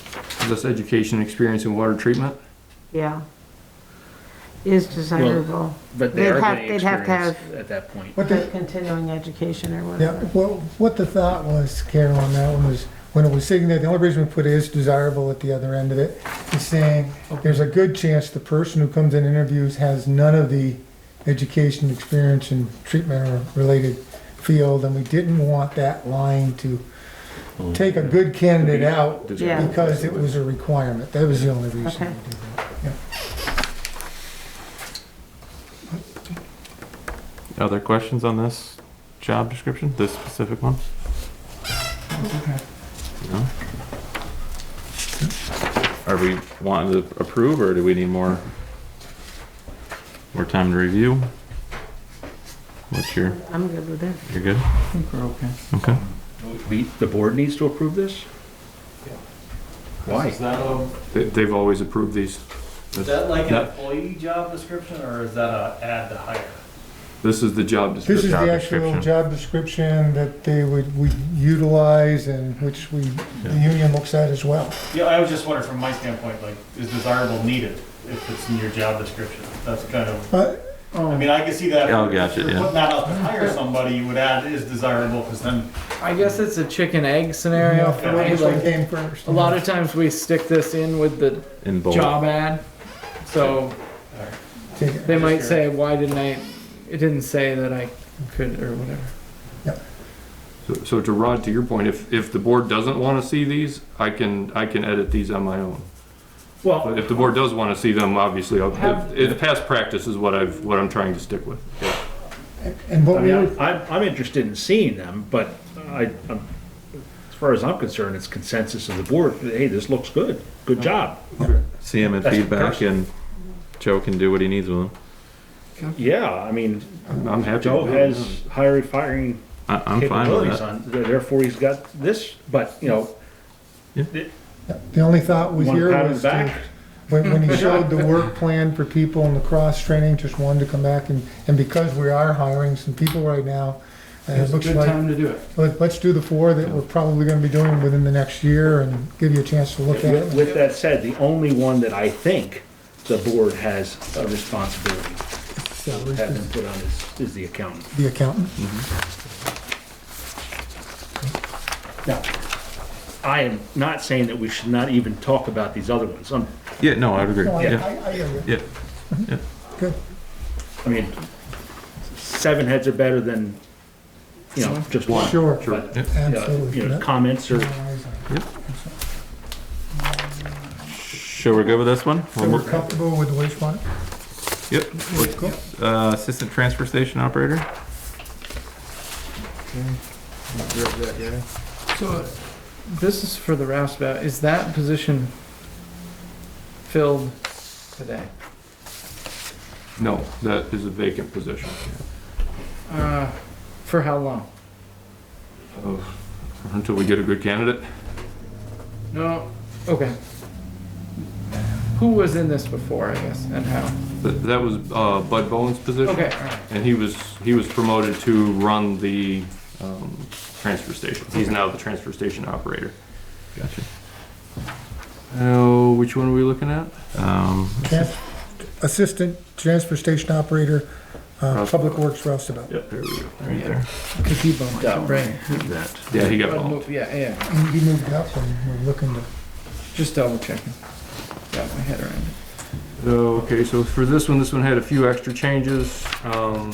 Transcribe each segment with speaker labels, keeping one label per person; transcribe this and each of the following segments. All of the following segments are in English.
Speaker 1: process, education, and experience in water treatment.
Speaker 2: yeah. Is desirable,
Speaker 3: But
Speaker 2: They'd
Speaker 3: they are
Speaker 2: have-
Speaker 3: getting
Speaker 2: they'd have to
Speaker 3: experience at that point.
Speaker 4: What
Speaker 2: the
Speaker 4: the,
Speaker 2: continuing education or
Speaker 4: yeah,
Speaker 2: whatever.
Speaker 4: well, what the thought was, Carol, on that one was, when it was sitting there, the only reason we put is desirable at the other end of it, is saying, there's a good chance the person who comes in interviews has none of the education, experience, and treatment or related field, and we didn't want that line to
Speaker 5: Mm.
Speaker 4: take a good candidate out
Speaker 2: Yeah.
Speaker 4: because it was a requirement. That was the only reason.
Speaker 2: Okay.
Speaker 4: we did that.
Speaker 5: Other questions on this job description, this specific one? No? Are we wanting to approve, or do we need more, more time to review? What's your,
Speaker 2: I'm good with it.
Speaker 5: you're good?
Speaker 3: I think we're okay.
Speaker 5: Okay.
Speaker 3: We, the board needs to approve this? Why?
Speaker 6: Is that a,
Speaker 1: They- They've always approved these.
Speaker 6: is that like an
Speaker 1: That-
Speaker 6: employee job description or is that a ad to hire?
Speaker 1: This is the job
Speaker 4: This is
Speaker 1: description.
Speaker 4: the
Speaker 5: Job
Speaker 4: actual
Speaker 5: description.
Speaker 4: job description that they would, we utilize and which we, the union looks at as well.
Speaker 6: Yeah, I was just wondering from my standpoint, like, is desirable needed if it's in your job description? That's kind of,
Speaker 4: But,
Speaker 6: I mean, I can see that.
Speaker 5: Oh, gotcha,
Speaker 6: If
Speaker 5: yeah.
Speaker 6: you're putting that out to hire somebody, you would add is desirable because then
Speaker 7: I guess it's a chicken egg scenario for me.
Speaker 4: Which one
Speaker 7: Like,
Speaker 4: came first?
Speaker 7: a lot of times we stick this in with the
Speaker 5: In bold?
Speaker 7: job ad, so
Speaker 4: Take it.
Speaker 7: they might say, "Why didn't I?" It didn't say that I could or whatever.
Speaker 1: So- So to Rod, to your point, if, if the board doesn't want to see these, I can, I can edit these on my own.
Speaker 3: Well,
Speaker 1: But if the board does want to see them, obviously, I'll-
Speaker 3: Have-
Speaker 1: it- past practice is what I've, what I'm trying to stick with.
Speaker 4: And
Speaker 3: I
Speaker 4: what we
Speaker 3: mean,
Speaker 4: would,
Speaker 3: I- I'm, I'm interested in seeing them, but I, I'm- as far as I'm concerned, it's consensus of the board, hey, this looks good, good job.
Speaker 5: See him and
Speaker 3: That's
Speaker 5: feedback,
Speaker 3: perfect.
Speaker 5: and Joe can do what he needs with him.
Speaker 3: Yeah, I mean,
Speaker 1: I'm I'm happy.
Speaker 3: Joe
Speaker 1: to do it.
Speaker 3: has hired, firing
Speaker 5: I, I'm fine with
Speaker 3: capabilities
Speaker 5: that.
Speaker 3: on, therefore he's got this, but, you know,
Speaker 4: the only thought was
Speaker 3: one
Speaker 4: here
Speaker 3: pat on the
Speaker 4: was to,
Speaker 3: back.
Speaker 4: when, when he showed the work plan for people and the cross-training, just wanted to come back and, and because we are hiring some people right now, uh, it
Speaker 8: It's a
Speaker 4: looks
Speaker 8: good
Speaker 4: like,
Speaker 8: time to do it.
Speaker 4: let- let's do the four that we're probably gonna be doing within the next year and give you a chance to look at
Speaker 3: With
Speaker 4: it.
Speaker 3: with that said, the only one that I think the board has a responsibility
Speaker 4: So
Speaker 3: to
Speaker 4: it's
Speaker 3: have them
Speaker 4: just
Speaker 3: put on is, is the accountant.
Speaker 4: The accountant.
Speaker 3: Now, I am not saying that we should not even talk about these other ones. Um, I'm-
Speaker 5: Yeah, no, I would agree,
Speaker 4: No, I,
Speaker 5: yeah,
Speaker 4: I, I hear you.
Speaker 5: yeah.
Speaker 4: Good.
Speaker 3: I mean, seven heads are better than, you know, just one.
Speaker 4: Sure.
Speaker 3: But,
Speaker 5: Yeah.
Speaker 3: you know,
Speaker 4: Absolutely.
Speaker 3: you know,
Speaker 4: Yep.
Speaker 3: comments are,
Speaker 5: Sure, we're good with this one?
Speaker 4: So we're comfortable with the wastewater?
Speaker 5: Yep,
Speaker 4: Cool.
Speaker 5: uh, assistant transfer station operator?
Speaker 7: So uh, this is for the roustabout. Is that position filled today?
Speaker 1: No, that is a vacant position.
Speaker 7: Uh, for how long?
Speaker 1: Until we get a good candidate,
Speaker 7: No. Okay. Who was in this before? I guess and how?
Speaker 1: that, that was uh, Bud Bowen's position.
Speaker 7: Okay. All right.
Speaker 1: And he was, he was promoted to run the, um, transfer station. He's now the transfer station operator.
Speaker 5: Gotcha.
Speaker 1: Oh, which one are we looking at?
Speaker 5: Um,
Speaker 4: Trans- Assistant Transfer Station Operator, uh, Public Works Roustabout.
Speaker 1: Yep, there we go.
Speaker 5: right there.
Speaker 7: Because he bumped
Speaker 3: Yeah.
Speaker 7: up, right?
Speaker 3: that,
Speaker 1: Yeah, he got
Speaker 7: Bud
Speaker 1: bumped.
Speaker 7: moved- Yeah, yeah.
Speaker 4: He he moved up and we're looking to,
Speaker 7: Just double checking. Got my head around it.
Speaker 1: Oh, Okay, so for this one, this one had a few extra changes. Um,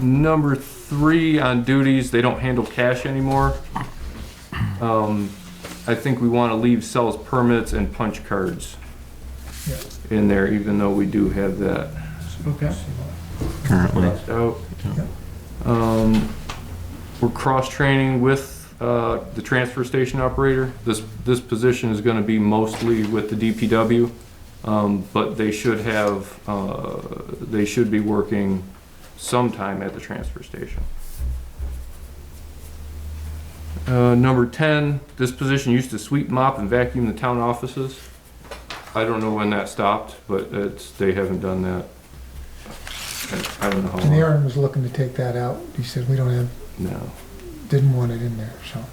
Speaker 1: Number three on duties, they don't handle cash anymore. Um, I think we want to leave sales permits and punch cards
Speaker 4: Yeah.
Speaker 1: in there, even though we do have that
Speaker 7: Okay.
Speaker 5: Currently.
Speaker 1: crossed out.
Speaker 4: Yeah.
Speaker 1: Um, We're cross-training with uh, the transfer station operator. This, this position is going to be mostly with the DPW, um, but they should have, uh, they should be working sometime at the transfer station. Uh, Number 10, this position used to sweep, mop, and vacuum the town offices. I don't know when that stopped, but it's, they haven't done that. I- I don't know how
Speaker 4: and
Speaker 1: long.
Speaker 4: Aaron was looking to take that out. He said, we don't have,
Speaker 1: No.
Speaker 4: didn't want it in there, so.